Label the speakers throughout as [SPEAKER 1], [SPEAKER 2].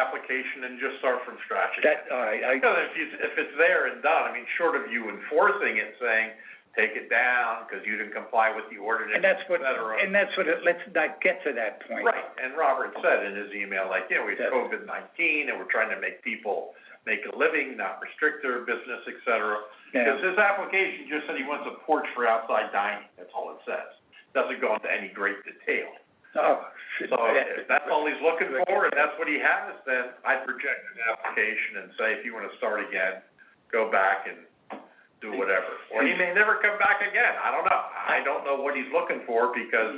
[SPEAKER 1] application and just start from scratch again.
[SPEAKER 2] That, all right, I,
[SPEAKER 1] Because if you, if it's there and done, I mean, short of you enforcing it, saying, take it down, cause you didn't comply with the ordinance,
[SPEAKER 2] and that's
[SPEAKER 1] et
[SPEAKER 2] what,
[SPEAKER 1] cetera.
[SPEAKER 2] and that's what, it- let's not get to that point.
[SPEAKER 1] Right, and Robert said in his email, like, yeah, we had
[SPEAKER 2] Yeah.
[SPEAKER 1] COVID nineteen, and we're trying to make people make a living, not restrict their business, et cetera.
[SPEAKER 2] Yeah,
[SPEAKER 1] Because his application just said he wants a porch for outside dining, that's all it says. Doesn't go into any great detail.
[SPEAKER 2] oh. shit,
[SPEAKER 1] So
[SPEAKER 2] that-
[SPEAKER 1] if that's all he's looking for, and that's what he has, then I'd reject his application and say, if you wanna start again, go back and do whatever. Or he may never come back again, I don't know. I don't know what he's looking for, because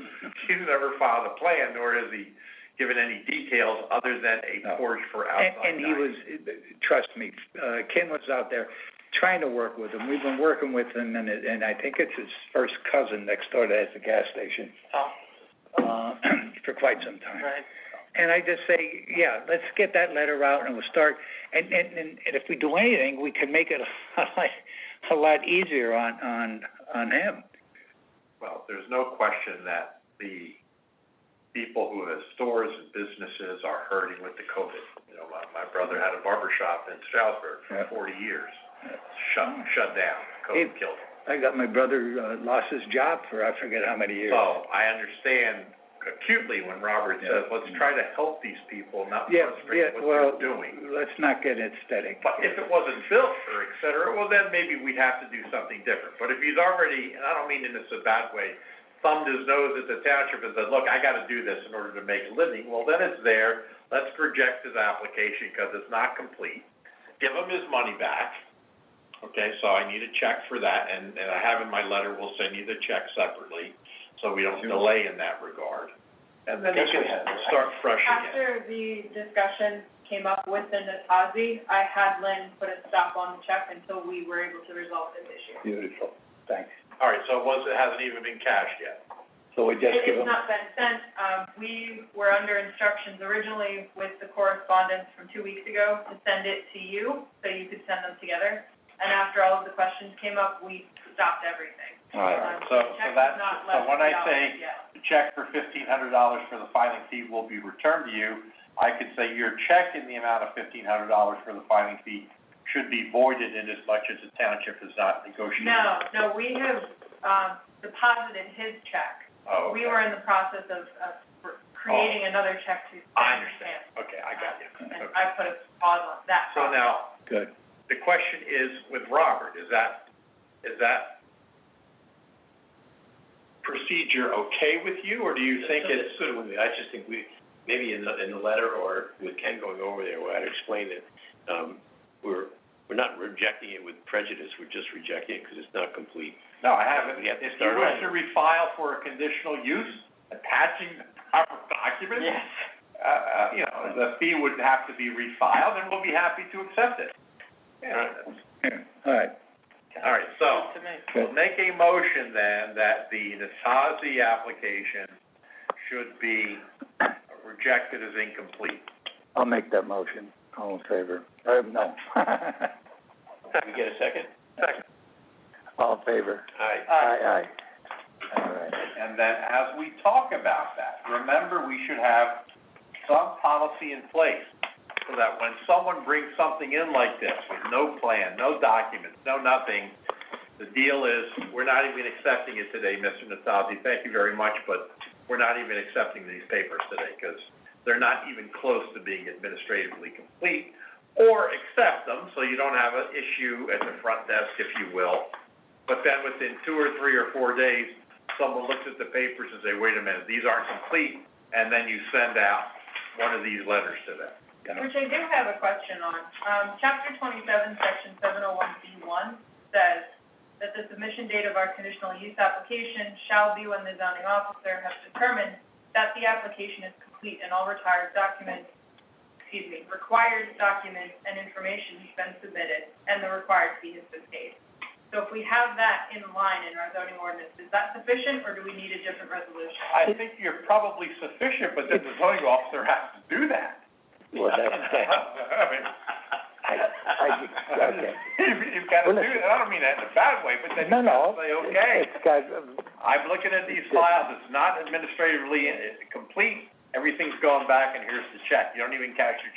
[SPEAKER 1] he's never filed a plan, nor has he given any details other than
[SPEAKER 2] No.
[SPEAKER 1] a porch for
[SPEAKER 2] And,
[SPEAKER 1] outside
[SPEAKER 2] and he
[SPEAKER 1] dining.
[SPEAKER 2] was, trust me, uh, Ken was out there trying to work with him. We've been working with him and it, and I think it's his first cousin next door that has the gas station,
[SPEAKER 3] Oh,
[SPEAKER 2] uh, for quite some time.
[SPEAKER 3] right.
[SPEAKER 2] And I just say, yeah, let's get that letter out and we'll start, and, and, and and if we do anything, we can make it a lot, a lot easier on, on, on him.
[SPEAKER 1] Well, there's no question that the people who have stores and businesses are hurting with the COVID. You know, my, my brother had a barber shop in Stroudsburg
[SPEAKER 2] Yeah.
[SPEAKER 1] for forty years,
[SPEAKER 2] Yeah.
[SPEAKER 1] shut, shut down,
[SPEAKER 2] It-
[SPEAKER 1] COVID killed him.
[SPEAKER 2] I got my brother, uh, lost his job for I forget how many years.
[SPEAKER 1] So I understand acutely when Robert
[SPEAKER 2] Yeah.
[SPEAKER 1] says, let's try to help these people, not
[SPEAKER 2] Yeah, yeah,
[SPEAKER 1] frustrate what
[SPEAKER 2] well,
[SPEAKER 1] they're doing.
[SPEAKER 2] let's not get aesthetic.
[SPEAKER 1] But if it wasn't built or et cetera, well, then maybe we'd have to do something different. But if he's already, and I don't mean in this a bad way, thumbed his nose at the township and said, look, I gotta do this in order to make a living, well, then it's there. Let's reject his application because it's not complete. Give him his money back. Okay, so I need a check for that and, and I have in my letter, we'll send you the check separately, so we don't
[SPEAKER 2] Sure.
[SPEAKER 1] delay in that regard. And then he
[SPEAKER 3] Yes,
[SPEAKER 1] can
[SPEAKER 3] we have, right?
[SPEAKER 1] start fresh again.
[SPEAKER 4] After the discussion came up with the Natazi, I had Lynn put a stop on the check until we were able to resolve this issue.
[SPEAKER 2] Beautiful, thanks.
[SPEAKER 1] All right, so it was, it hasn't even been cashed yet.
[SPEAKER 2] So we just give
[SPEAKER 4] It has
[SPEAKER 2] him,
[SPEAKER 4] not been sent, um, we were under instructions originally with the correspondence from two weeks ago to send it to you, so you could send them together. And after all of the questions came up, we stopped everything.
[SPEAKER 2] all right,
[SPEAKER 4] Um,
[SPEAKER 1] so-
[SPEAKER 4] the
[SPEAKER 1] so
[SPEAKER 4] check was
[SPEAKER 1] that's-
[SPEAKER 4] not
[SPEAKER 1] so
[SPEAKER 4] left
[SPEAKER 1] when I
[SPEAKER 4] without
[SPEAKER 1] say-
[SPEAKER 4] it yet.
[SPEAKER 1] the check for fifteen hundred dollars for the filing fee will be returned to you, I could say your check in the amount of fifteen hundred dollars for the filing fee should be voided in as much as the township has not negotiated.
[SPEAKER 4] No, no, we have, um, deposited his check.
[SPEAKER 1] Oh,
[SPEAKER 4] We
[SPEAKER 1] okay. Oh.
[SPEAKER 4] were in the process of, of creating another check to send
[SPEAKER 1] I
[SPEAKER 4] to him.
[SPEAKER 1] understand, okay, I got you.
[SPEAKER 4] And
[SPEAKER 1] Okay.
[SPEAKER 4] I put a pause on that.
[SPEAKER 1] So now,
[SPEAKER 2] good.
[SPEAKER 1] the question is with Robert, is that, is that procedure okay with you, or do you think it's?
[SPEAKER 3] good with me, I just think we, maybe in the, in the letter or with Ken going over there, where I'd explain that, um, we're, we're not rejecting it with prejudice, we're just rejecting it because it's not complete.
[SPEAKER 1] No, I haven't.
[SPEAKER 3] We have to
[SPEAKER 1] If you
[SPEAKER 3] start
[SPEAKER 1] wish
[SPEAKER 3] over.
[SPEAKER 1] to refile for a conditional use, attaching the proper documents, uh, uh, you know, the fee would have to be refiled, and we'll be happy to accept it.
[SPEAKER 3] Right.
[SPEAKER 2] Yeah, All right,
[SPEAKER 1] All right, so-
[SPEAKER 3] To me.
[SPEAKER 1] We'll make a motion then that the Natazi application should be rejected as incomplete.
[SPEAKER 2] I'll make that motion, all in favor, uh, no.
[SPEAKER 3] Can we get a second?
[SPEAKER 2] All in favor,
[SPEAKER 3] Aye.
[SPEAKER 2] aye, aye. All right,
[SPEAKER 1] And then as we talk about that, remember, we should have some policy in place so that when someone brings something in like this with no plan, no documents, no nothing, the deal is, we're not even accepting it today, Mr. Natazi, thank you very much, but we're not even accepting these papers today because they're not even close to being administratively complete. Or accept them so you don't have an issue at the front desk, if you will. But then within two or three or four days, someone looks at the papers and say, wait a minute, these aren't complete, and then you send out one of these letters to them.
[SPEAKER 2] got it.
[SPEAKER 4] Which I do have a question on. Um, chapter twenty-seven, section seven oh one B one says that the submission date of our conditional use application shall be when the zoning officer has determined that the application is complete and all retired documents, excuse me, required documents and information has been submitted and the required fee has been paid. So if we have that in line in our zoning ordinance, is that sufficient or do we need a different resolution?
[SPEAKER 1] I think you're probably sufficient, but then the zoning officer has to do that.
[SPEAKER 2] Well, that's, that,
[SPEAKER 1] I mean.
[SPEAKER 2] I, I, okay.
[SPEAKER 1] You've, you've got to do that, I don't mean that in a bad way, but then
[SPEAKER 2] No,
[SPEAKER 1] you
[SPEAKER 2] no.
[SPEAKER 1] gotta say, okay,
[SPEAKER 2] It's got, um,
[SPEAKER 1] I'm looking at these files, it's not administratively uh, complete, everything's gone back and here's the check, you don't even cash your check.